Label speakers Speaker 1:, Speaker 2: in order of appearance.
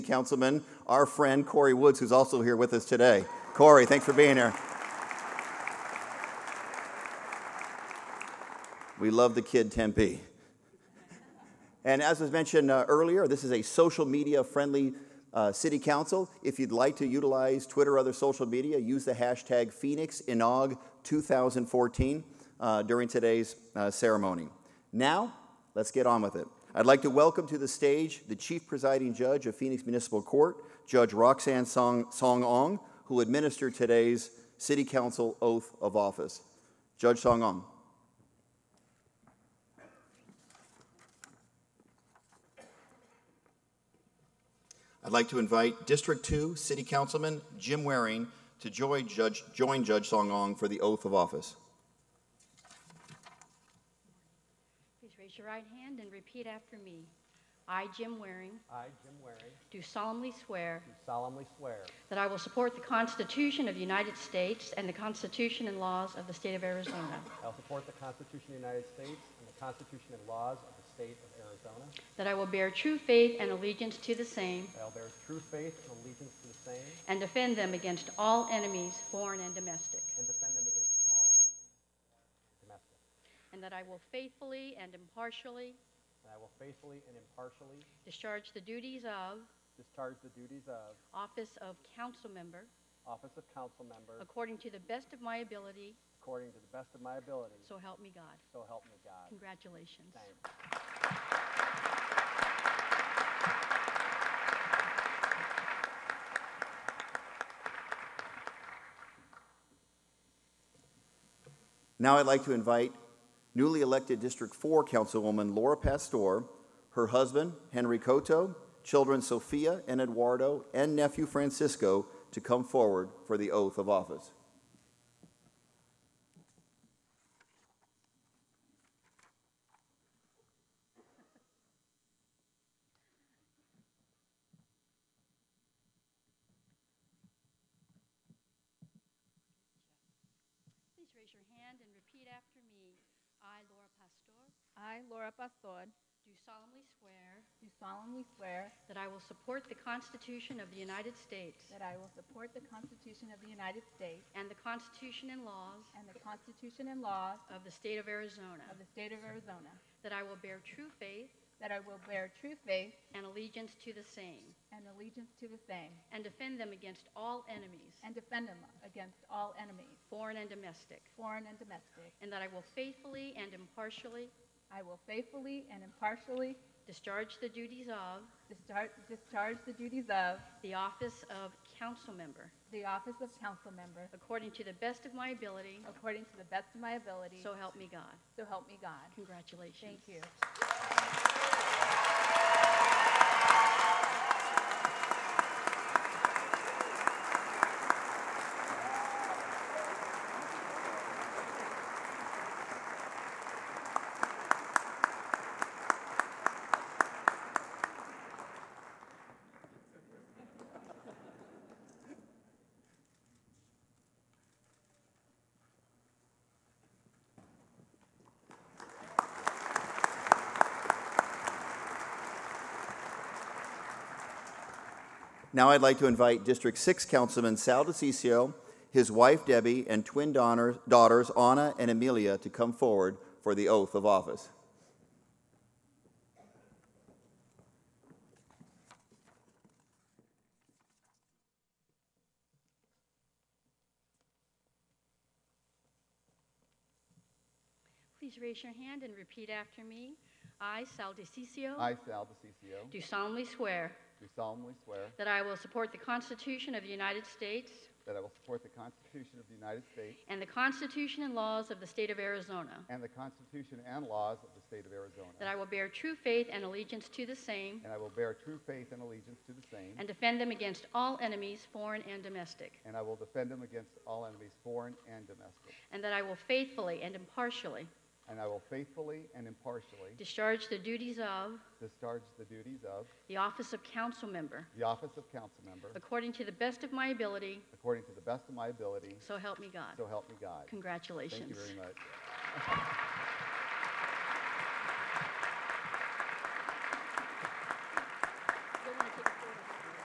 Speaker 1: Councilman, our friend Corey Woods, who's also here with us today. Corey, thanks for being here. We love the kid Tempe. And as was mentioned uh, earlier, this is a social media friendly uh, city council. If you'd like to utilize Twitter or other social media, use the hashtag PhoenixInog2014 uh, during today's uh, ceremony. Now, let's get on with it. I'd like to welcome to the stage the Chief Presiding Judge of Phoenix Municipal Court, Judge Roxanne Song, Song Ong, who will administer today's City Council oath of office. Judge Song Ong. I'd like to invite District 2 City Councilman Jim Waring to join Judge, join Judge Song Ong for the oath of office.
Speaker 2: Please raise your right hand and repeat after me. I, Jim Waring,
Speaker 3: I, Jim Waring,
Speaker 2: do solemnly swear
Speaker 3: do solemnly swear
Speaker 2: that I will support the Constitution of the United States and the Constitution and laws of the state of Arizona,
Speaker 3: I will support the Constitution of the United States and the Constitution and laws of the state of Arizona.
Speaker 2: that I will bear true faith and allegiance to the same,
Speaker 3: that I will bear true faith and allegiance to the same
Speaker 2: and defend them against all enemies, foreign and domestic,
Speaker 3: and defend them against all enemies, foreign and domestic.
Speaker 2: and that I will faithfully and impartially
Speaker 3: And I will faithfully and impartially
Speaker 2: discharge the duties of
Speaker 3: discharge the duties of
Speaker 2: office of council member
Speaker 3: office of council member
Speaker 2: according to the best of my ability,
Speaker 3: according to the best of my ability.
Speaker 2: so help me God.
Speaker 3: So help me God.
Speaker 2: Congratulations.
Speaker 3: Thank you.
Speaker 1: Now I'd like to invite newly elected District 4 Councilwoman Laura Pastor, her husband Henry Cotto, children Sophia and Eduardo, and nephew Francisco to come forward for the oath of office.
Speaker 2: Please raise your hand and repeat after me. I, Laura Pastor,
Speaker 4: I, Laura Pastor,
Speaker 2: do solemnly swear
Speaker 4: do solemnly swear
Speaker 2: that I will support the Constitution of the United States
Speaker 4: that I will support the Constitution of the United States
Speaker 2: and the Constitution and laws
Speaker 4: and the Constitution and laws
Speaker 2: of the state of Arizona,
Speaker 4: of the state of Arizona,
Speaker 2: that I will bear true faith
Speaker 4: that I will bear true faith
Speaker 2: and allegiance to the same,
Speaker 4: and allegiance to the same,
Speaker 2: and defend them against all enemies,
Speaker 4: and defend them against all enemies,
Speaker 2: foreign and domestic,
Speaker 4: foreign and domestic.
Speaker 2: and that I will faithfully and impartially
Speaker 4: I will faithfully and impartially
Speaker 2: discharge the duties of
Speaker 4: discharge, discharge the duties of
Speaker 2: the office of council member
Speaker 4: the office of council member
Speaker 2: according to the best of my ability,
Speaker 4: according to the best of my ability.
Speaker 2: so help me God.
Speaker 4: So help me God.
Speaker 2: Congratulations.
Speaker 4: Thank you.
Speaker 1: Now I'd like to invite District 6 Councilman Sal DeCiccio, his wife Debbie, and twin daughter- daughters Anna and Amelia to come forward for the oath of office.
Speaker 2: Please raise your hand and repeat after me. I, Sal DeCiccio.
Speaker 5: I, Sal DeCiccio,
Speaker 2: Do solemnly swear
Speaker 5: do solemnly swear
Speaker 2: that I will support the Constitution of the United States
Speaker 5: that I will support the Constitution of the United States
Speaker 2: and the Constitution and laws of the state of Arizona,
Speaker 5: and the Constitution and laws of the state of Arizona,
Speaker 2: that I will bear true faith and allegiance to the same,
Speaker 5: and I will bear true faith and allegiance to the same,
Speaker 2: and defend them against all enemies, foreign and domestic,
Speaker 5: and I will defend them against all enemies, foreign and domestic,
Speaker 2: and that I will faithfully and impartially
Speaker 5: and I will faithfully and impartially
Speaker 2: discharge the duties of
Speaker 5: discharge the duties of
Speaker 2: the office of council member
Speaker 5: the office of council member
Speaker 2: according to the best of my ability,
Speaker 5: according to the best of my ability,
Speaker 2: so help me God.
Speaker 5: so help me God. Thank you
Speaker 2: Congratulations.
Speaker 5: very much.